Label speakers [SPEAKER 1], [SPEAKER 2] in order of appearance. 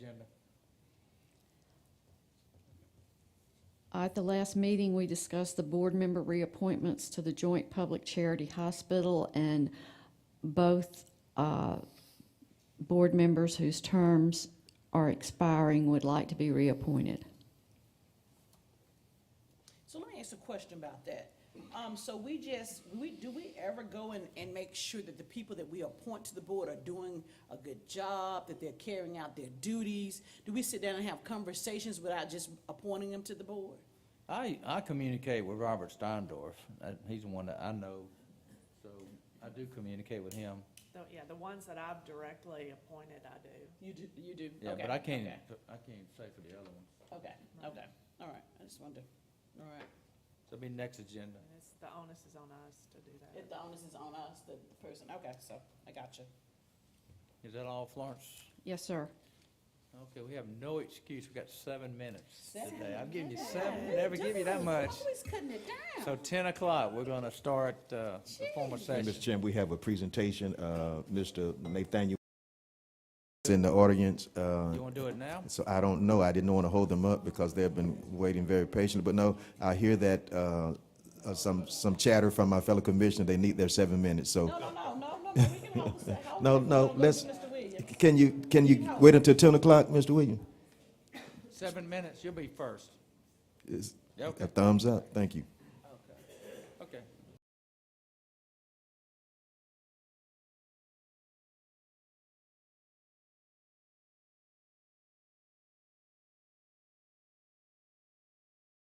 [SPEAKER 1] Uh, At the last meeting, we discussed the board member reappointments to the Joint Public Charity Hospital, and both uh, board members whose terms are expiring would like to be reappointed.
[SPEAKER 2] So let me ask a question about that. Um, so we just, we, do we ever go and, and make sure that the people that we appoint to the board are doing a good job, that they're carrying out their duties? Do we sit down and have conversations without just appointing them to the board?
[SPEAKER 3] I, I communicate with Robert Steindorf. Uh, He's the one that I know, so I do communicate with him.
[SPEAKER 4] The- Yeah, the ones that I've directly appointed, I do.
[SPEAKER 2] You do, you do?
[SPEAKER 3] Yeah,
[SPEAKER 2] Okay,
[SPEAKER 3] but I can't,
[SPEAKER 2] okay,
[SPEAKER 3] I can't say for the other one.
[SPEAKER 2] Okay, okay, all right, I just wondered, all right.
[SPEAKER 3] So it'll be next agenda.
[SPEAKER 4] And it's, the onus is on us to do
[SPEAKER 2] If
[SPEAKER 4] that.
[SPEAKER 2] the onus is on us, the the person, okay, so, I got you.
[SPEAKER 3] Is that all, Florence?
[SPEAKER 1] Yes, sir.
[SPEAKER 3] Okay, we have no excuse. We got seven minutes today.
[SPEAKER 2] Seven
[SPEAKER 3] I'm giving you seven, never give you that much.
[SPEAKER 2] Always cutting it down.
[SPEAKER 3] So ten o'clock, we're gonna start, uh, the formal
[SPEAKER 5] And,
[SPEAKER 3] session.
[SPEAKER 5] Mr. Chairman, we have a presentation, uh, Mr. Nathaniel is in the audience. uh,
[SPEAKER 3] You wanna do it now?
[SPEAKER 5] So I don't know, I didn't want to hold them up because they've been waiting very patiently. But no, I hear that uh, uh, some, some chatter from my fellow commissioner, they need their seven minutes.
[SPEAKER 2] No,
[SPEAKER 5] So,
[SPEAKER 2] no, no, no, no, no, we can hold the se- hold
[SPEAKER 5] No,
[SPEAKER 2] the-
[SPEAKER 5] no,
[SPEAKER 2] hold the-
[SPEAKER 5] let's-
[SPEAKER 2] Mr. Williams.
[SPEAKER 5] can you, can you wait until 10 o'clock, Mr. Williams?
[SPEAKER 3] Seven minutes, you'll be first.
[SPEAKER 5] Is-
[SPEAKER 3] Yeah,
[SPEAKER 5] A
[SPEAKER 3] okay,
[SPEAKER 5] thumbs up, thank you.
[SPEAKER 3] okay.